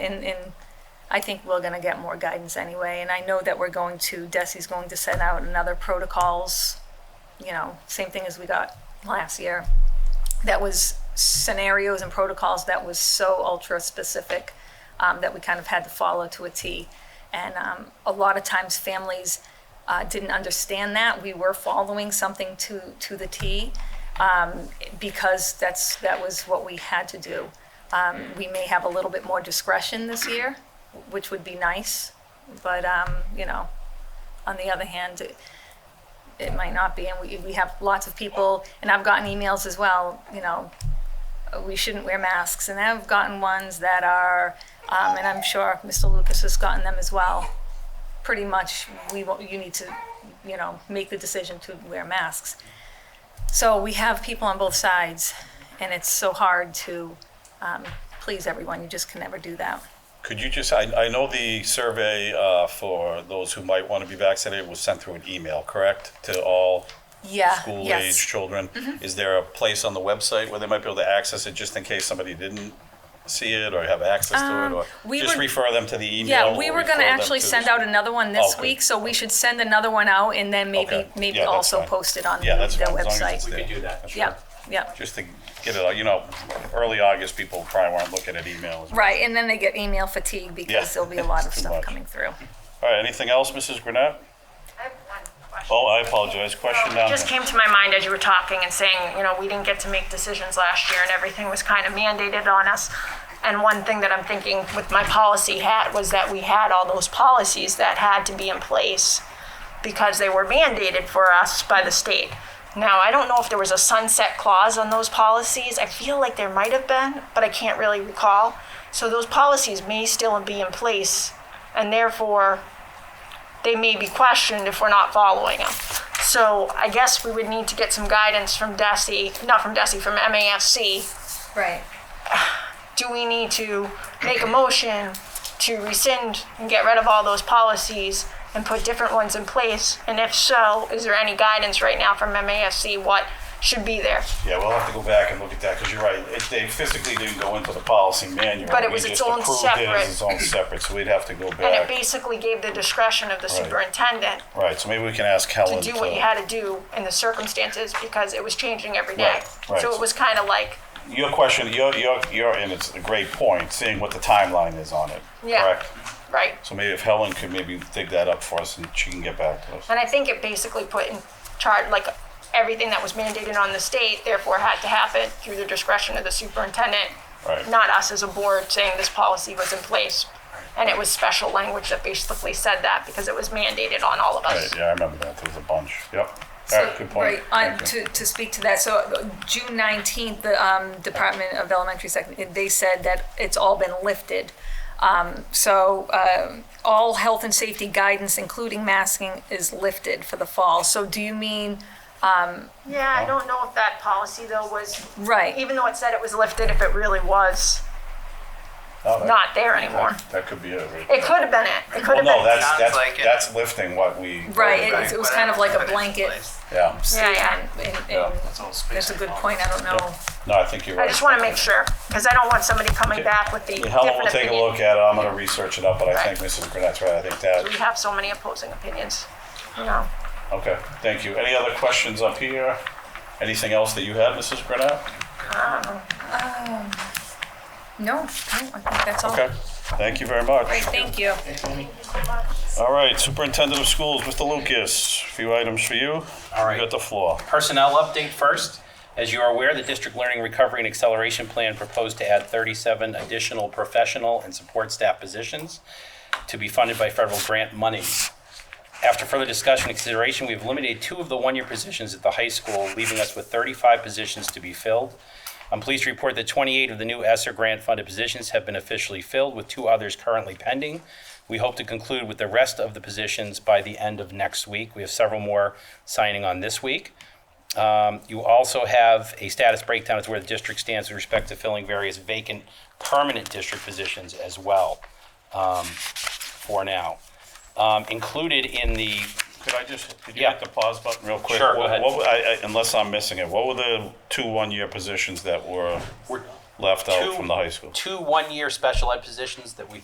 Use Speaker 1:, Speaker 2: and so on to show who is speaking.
Speaker 1: and, and I think we're gonna get more guidance anyway, and I know that we're going to, Desi's going to send out another protocols, you know, same thing as we got last year. That was scenarios and protocols that was so ultra-specific, um, that we kind of had to follow to a T. And, um, a lot of times families, uh, didn't understand that. We were following something to, to the T, um, because that's, that was what we had to do. Um, we may have a little bit more discretion this year, which would be nice, but, um, you know, on the other hand, it- it might not be, and we, we have lots of people, and I've gotten emails as well, you know, we shouldn't wear masks, and I've gotten ones that are, um, and I'm sure Mr. Lucas has gotten them as well. Pretty much, we, won't- you need to, you know, make the decision to wear masks. So we have people on both sides, and it's so hard to um, please everyone. You just can never do that.
Speaker 2: Could you just, I, I know the survey uh, for those who might want to be vaccinated was sent through an email, correct? To all
Speaker 1: Yeah.
Speaker 2: school-age
Speaker 1: yes. Mm-hmm.
Speaker 2: children? Is there a place on the website where they might be able to access it just in case somebody didn't see it or have access to it?
Speaker 1: Um,
Speaker 2: Or
Speaker 1: we
Speaker 2: just
Speaker 1: were-
Speaker 2: refer them to the email?
Speaker 1: Yeah, we
Speaker 2: or
Speaker 1: were going to
Speaker 2: refer them
Speaker 1: actually
Speaker 2: to-
Speaker 1: send out another one this
Speaker 2: Okay.
Speaker 1: week, so we should send another one out and then maybe
Speaker 2: Okay.
Speaker 1: maybe
Speaker 2: Yeah, that's
Speaker 1: also
Speaker 2: fine.
Speaker 1: post it on
Speaker 2: Yeah,
Speaker 1: their
Speaker 2: that's fine, as long as it's
Speaker 1: website.
Speaker 2: there.
Speaker 3: We could do that.
Speaker 2: That's
Speaker 1: Yeah,
Speaker 2: right.
Speaker 1: yeah.
Speaker 2: Just to get it out, you know, early August, people probably weren't looking at emails.
Speaker 1: Right, and then they get email fatigue because
Speaker 2: Yeah.
Speaker 1: there'll be a lot of
Speaker 2: Too
Speaker 1: stuff
Speaker 2: much.
Speaker 1: coming through.
Speaker 2: All right, anything else, Mrs. Grenat?
Speaker 4: I have one question.
Speaker 2: Oh, I apologize, question
Speaker 4: It
Speaker 2: down
Speaker 4: Uh, just
Speaker 2: there.
Speaker 4: came to my mind as you were talking and saying, you know, we didn't get to make decisions last year and everything was kind of mandated on us. And one thing that I'm thinking with my policy hat was that we had all those policies that had to be in place because they were mandated for us by the state. Now, I don't know if there was a sunset clause on those policies. I feel like there might have been, but I can't really recall. So those policies may still be in place and therefore they may be questioned if we're not following them. So I guess we would need to get some guidance from DESI, not from DESI, from MASC.
Speaker 1: Right.
Speaker 4: Do we need to make a motion to rescind and get rid of all those policies and put different ones in place? And if so, is there any guidance right now from MASC what should be there?
Speaker 2: Yeah, we'll have to go back and look at that, because you're right, it, they physically didn't go into the policy manual.
Speaker 4: But it
Speaker 2: We
Speaker 4: was its
Speaker 2: just
Speaker 4: own
Speaker 2: approved it as Its own separate, so we'd have to go
Speaker 4: And it
Speaker 2: back.
Speaker 4: basically gave the discretion of the superintendent
Speaker 2: Right, so maybe we can ask
Speaker 4: to
Speaker 2: Helen to.
Speaker 4: do what you had to do in the circumstances because it was changing every day.
Speaker 2: Right, right.
Speaker 4: So it was kind of like,
Speaker 2: Your question, your, your, your, and it's a great point, seeing what the timeline is on it,
Speaker 4: Yeah.
Speaker 2: correct?
Speaker 4: right,
Speaker 2: So maybe if Helen could maybe dig that up for us and she can get back to us.
Speaker 4: And I think it basically put in charge, like, everything that was mandated on the state, therefore had to happen through the discretion of the superintendent,
Speaker 2: Right.
Speaker 4: not us as a board saying this policy was in place. And it was special language that basically said that because it was mandated on all of
Speaker 2: Right,
Speaker 4: us.
Speaker 2: yeah, I remember that, there was a bunch, yep. All
Speaker 1: So,
Speaker 2: right, good point.
Speaker 1: Right, on,
Speaker 2: Thank you.
Speaker 1: to, to speak to that, so uh, June nineteenth, the, um, Department of Elementary Second, they said that it's all been lifted. Um, so, um all health and safety guidance, including masking, is lifted for the fall. So do you mean,
Speaker 4: Yeah, I don't know if that policy though was,
Speaker 1: right,
Speaker 4: even though it said it was lifted, if it really was
Speaker 2: Oh, that-
Speaker 4: not there anymore.
Speaker 2: That could be it, right?
Speaker 4: It could have been it. It could
Speaker 2: Well,
Speaker 4: have
Speaker 2: no,
Speaker 4: been.
Speaker 2: that's,
Speaker 5: Sounds
Speaker 2: that's,
Speaker 5: like it.
Speaker 2: that's lifting what we.
Speaker 1: right, it- it was kind of like a
Speaker 5: But it's
Speaker 1: blanket.
Speaker 5: placed.
Speaker 2: Yeah,
Speaker 4: Yeah, yeah.
Speaker 1: statement, and-
Speaker 2: Yeah,
Speaker 1: and
Speaker 5: That's all space.
Speaker 1: That's a good
Speaker 5: involved.
Speaker 1: point, I don't know.
Speaker 2: no, I think you're right.
Speaker 4: I just want to make sure because I don't want somebody comcoming
Speaker 2: Okay.
Speaker 4: back with the
Speaker 2: Yeah,
Speaker 4: different
Speaker 2: Helen will
Speaker 4: opinion.
Speaker 2: take a look at it, I'm gonna research it up, but I
Speaker 4: Right.
Speaker 2: think Mrs. Grenat's right, I think
Speaker 4: we
Speaker 2: that,
Speaker 4: have so many opposing opinions, you know.
Speaker 2: okay, thank you. Any other questions up here? Anything else that you had, Mrs. Grenat?
Speaker 1: No, no, I think that's all.
Speaker 2: Okay, thank you very much.
Speaker 1: Great, thank you.
Speaker 2: All right, Superintendent of Schools, Mr. Lucas, a few items for you.
Speaker 3: All right.
Speaker 2: You got the floor.
Speaker 3: Personnel update first. As you are aware, the District Learning Recovery and Acceleration Plan proposed to add 37 additional professional and support staff positions to be funded by federal grant money. After further discussion and consideration, we've eliminated two of the one-year positions at the high school, leaving us with 35 positions to be filled. I'm pleased to report that 28 of the new ESSER grant-funded positions have been officially filled, with two others currently pending. We hope to conclude with the rest of the positions by the end of next week. We have several more signing on this week. Um, You also have a status breakdown as to where the district stands with respect to filling various vacant permanent district positions as well, um, for now. Um, Included in the,
Speaker 2: Could I just, could you
Speaker 3: Yeah.
Speaker 2: hit the pause button real quick?
Speaker 3: Sure, go
Speaker 2: What-
Speaker 3: ahead.
Speaker 2: what were- I- I- Unless I'm missing it, what were the two one-year positions that were
Speaker 3: we're-
Speaker 2: left out
Speaker 3: Two-
Speaker 2: Oh, from the high school.
Speaker 3: Two one-year special ed positions that we